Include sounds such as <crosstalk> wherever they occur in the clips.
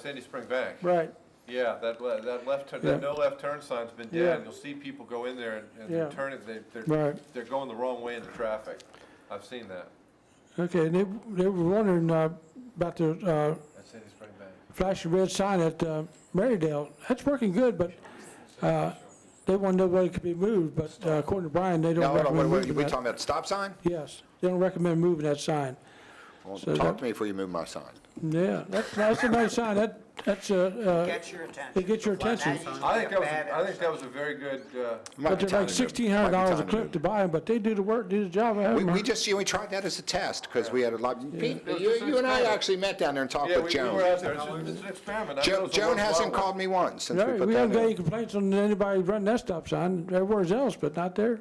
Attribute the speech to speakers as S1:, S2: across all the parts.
S1: Sandy Spring Bank.
S2: Right,
S1: Yeah, that, le- that left, turn-
S2: Yeah.
S1: that no left turn sign's been
S2: Yeah.
S1: down. You'll see people go in there and- and
S2: Yeah.
S1: they're turning, they, they're,
S2: Right.
S1: they're going the wrong way in the traffic. I've seen that
S2: okay, and they, they were wondering uh, about the uh,
S1: at Sandy Spring Bank.
S2: flashing red sign at uh, Marydale. That's working good, but uh, they want to know whether it could be moved, but uh, according to Brian, they
S3: No,
S2: don't
S3: hold on, wait,
S2: recommend
S3: wait,
S2: moving
S3: we talking
S2: that.
S3: about stop sign?
S2: Yes, they don't recommend moving that sign.
S3: Well,
S2: So
S3: Talk
S2: that-
S3: to me before you move my sign.
S2: Yeah, that's, that's a nice sign, that, that's a,
S4: Get your attention.
S2: It gets Uh, your
S4: Now
S2: attention.
S4: you
S1: I think
S4: get
S1: that was,
S4: bad
S1: a- I think that was
S4: energy.
S1: a very good, uh,
S2: but they're like sixteen hundred dollars a clip to buy them, but they do the work, do the job, I have
S3: We,
S2: 'em.
S3: we just, you know, we tried that as a test, because we had a lot, Pete,
S1: It was
S3: you,
S1: just an
S3: you and I
S1: experiment.
S3: actually met down there and talked
S1: yeah, we
S3: with
S1: we were
S3: Joan.
S1: out there, it's it's an experiment. I know
S3: Jo-
S1: it's a
S3: Joan hasn't
S1: worthwhile
S3: called me once since we
S2: Right,
S3: put
S2: we haven't
S3: that
S2: got any
S3: in.
S2: complaints on anybody running that stop sign, everywhere's else, but not there.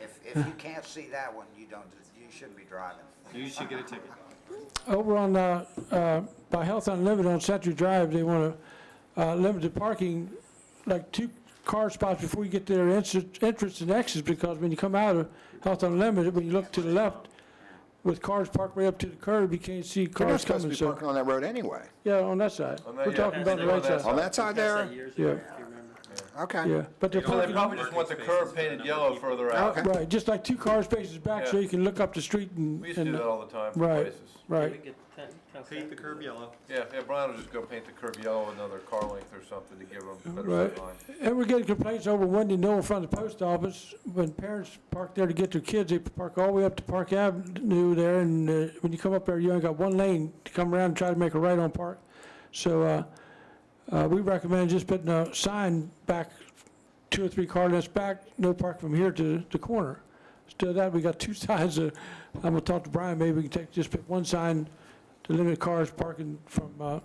S4: If, if you can't see that one, you don't, you shouldn't be driving.
S5: You should get
S1: <laughs>
S5: a ticket.
S2: Over on, uh, uh, by Health Unlimited on Century Drive, they want to uh, limit the parking, like two car spots before you get to their entrance entrance and exits, because when you come out of Health Unlimited, when you look to the left, with cars parked way up to the curb, you can't see
S3: We're not
S2: cars
S3: supposed to
S2: coming,
S3: be
S2: so,
S3: parking on that road anyway.
S2: yeah, on that side.
S1: On that-
S2: We're
S1: yeah,
S2: talking about the
S1: on
S2: right
S1: that
S2: side,
S3: On that side there?
S2: yeah,
S3: Okay.
S2: yeah, but they're
S1: Well, they
S2: parking,
S1: probably just want the curb painted yellow further out.
S3: Okay.
S2: right, just like two car spaces back, so
S1: Yeah.
S2: you can look up the street and,
S1: We used to do
S2: and,
S1: that all the time for
S2: right,
S1: places.
S2: right.
S5: Paint the curb yellow.
S1: Yeah, yeah, Brian will just go paint the curb yellow another car length or something to give them better
S2: Right.
S1: sight line.
S2: And we're getting complaints over Wendy Knoll in front of the post office. When parents park there to get their kids, they park all the way up to Park Avenue there, and uh, when you come up there, you only got one lane to come around and try to make a right on Park. So uh, uh, we recommend just putting a sign back, two or three car lengths back, no park from here to the corner. Instead of that, we got <laughs> two signs. uh, I'm gonna talk to Brian, maybe we can take, just put one sign to limit cars parking from uh,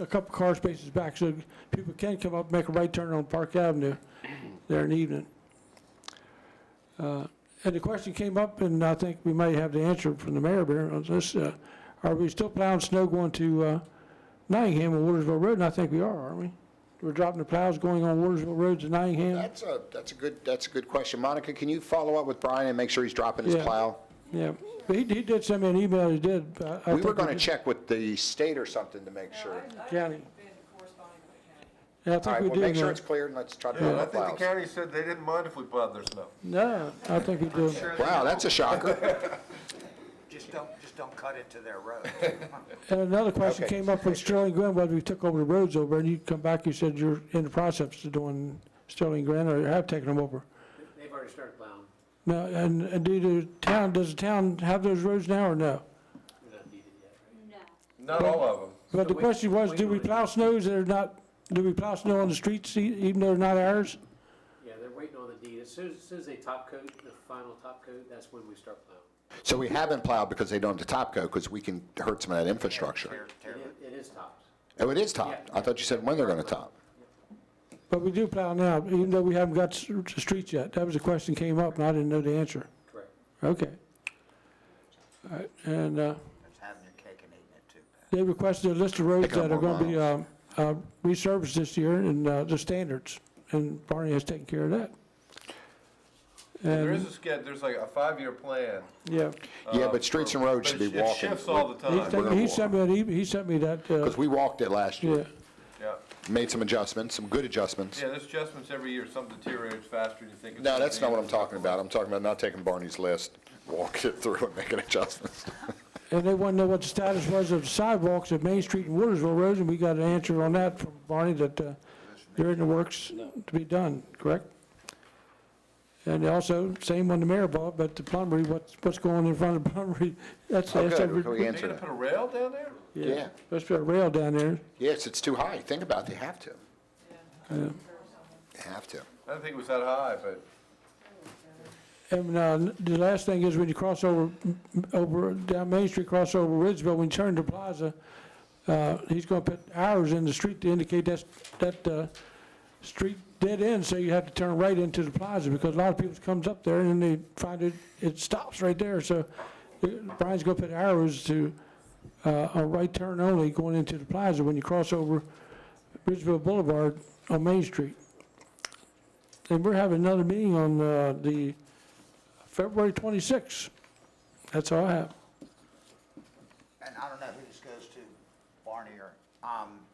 S2: a couple car spaces back, so people can come up, and make a right turn on Park Avenue there in the evening. Uh, And the question came up, and I think we may have the answer from the mayor there on this, uh, are we still plowing snow going to uh, Nottingham and Watersville Road? And I think we are, aren't we? We're dropping the plows going on Watersville Road to Nottingham?
S3: That's a, that's a good, that's a good question. Monica, can you follow up with Brian and make sure he's dropping his
S2: Yeah.
S3: plow?
S2: Yeah, but he he did send me an email, he did. I- I
S3: We were
S2: think he
S3: gonna
S2: did.
S3: check with the state or something to make sure.
S2: County.
S6: been corresponding with the county.
S2: Yeah, I
S3: All
S2: think
S3: right,
S2: we uh,
S3: well,
S2: do.
S3: make sure
S2: now.
S3: it's clear and let's try to
S1: Yeah, and
S3: move
S1: I
S3: our
S1: think the
S3: plows.
S1: county said they didn't mind if we plowed their snow.
S2: No, I think we do.
S3: Wow, that's a shocker.
S4: Just don't, just don't cut into
S1: <laughs>
S4: their road.
S2: And another question
S3: Okay.
S2: came up with Sterling Glen, whether we took over the roads over, and you come back, you said you're in the process of doing Sterling Glen, or have taken them over.
S7: They've already started plowing.
S2: Now, and, and do the town, does the town have those roads now, or no?
S7: We don't need it yet, right?
S1: Not all of them.
S2: But the
S7: we-
S2: question was,
S7: we
S2: do we
S7: might.
S2: plow snows that are not, do we plow snow on the streets e- even though they're not ours?
S7: Yeah, they're waiting on the deed. As soon as, as soon as they top coat, the final top coat, that's when we start plowing.
S3: So we haven't plowed because they don't have the top coat, because we can hurt some of that infrastructure.
S4: Tear- tear-
S7: It i- It is topped.
S3: Oh, it is topped. I thought you said when they're gonna top.
S2: But we do plow now, even though we haven't got s- the streets yet. That was a question came up, and I didn't know the answer.
S7: correct.
S2: Okay. All right, and, uh,
S4: That's having your cake and eating it too, Pat.
S2: They requested a list of roads
S3: Pick up
S2: that are going
S3: more
S2: to be um, uh, resurfaced this year and uh, the standards, and Barney has taken care of that.
S1: There
S2: And,
S1: is a sched, there's like a five-year plan.
S2: yeah,
S3: Yeah, but streets and roads
S1: Uh,
S3: should
S1: But
S3: be
S1: it- it
S3: walking.
S1: shifts all the
S2: he
S1: time,
S2: sent-
S3: gonna
S2: he
S3: walk.
S2: sent me an email, he sent me that, uh,
S3: Because we walked it last
S2: yeah,
S3: year,
S1: yeah.
S3: made some adjustments, some good adjustments.
S1: Yeah, there's adjustments every year, some deteriorates faster than you think. it's
S3: No,
S1: gonna
S3: that's
S1: be.
S3: not what I'm talking about. I'm talking about not taking Barney's list, walking it through and
S1: <laughs>
S3: making adjustments.
S2: and they want to know what the status was of sidewalks at Main Street and Watersville Road, and we got an answer on that from Barney that uh, they're in the works to be done, correct? And also, same one the mayor bought, but the plumbery, what's, what's going in front of plumbery, <laughs> that's,
S3: Oh,
S2: that's,
S3: good,
S2: over-
S3: we
S1: Are you
S3: answered
S1: gonna
S3: it.
S1: put a rail down there?
S2: yeah,
S3: Yeah.
S2: supposed to be a rail down there.
S3: Yes, it's too high. Think about it, they have to. They have to.
S1: I don't think it was that high, but
S2: And uh, the last thing is when you cross over, over down Main Street, cross over Ridgeville, when you turn to Plaza, uh, he's going to put arrows in the street to indicate that's, that uh, street dead end, so you have to turn right into the plaza because a lot of people comes up there and they find it, it stops right there. So uh, Brian's going to put arrows to uh, a right turn only going into the plaza when you cross over Ridgeville Boulevard on Main Street. And we're having another meeting on uh, the February 26th. That's all I have.
S4: And I don't know who this goes to, Barney or, um,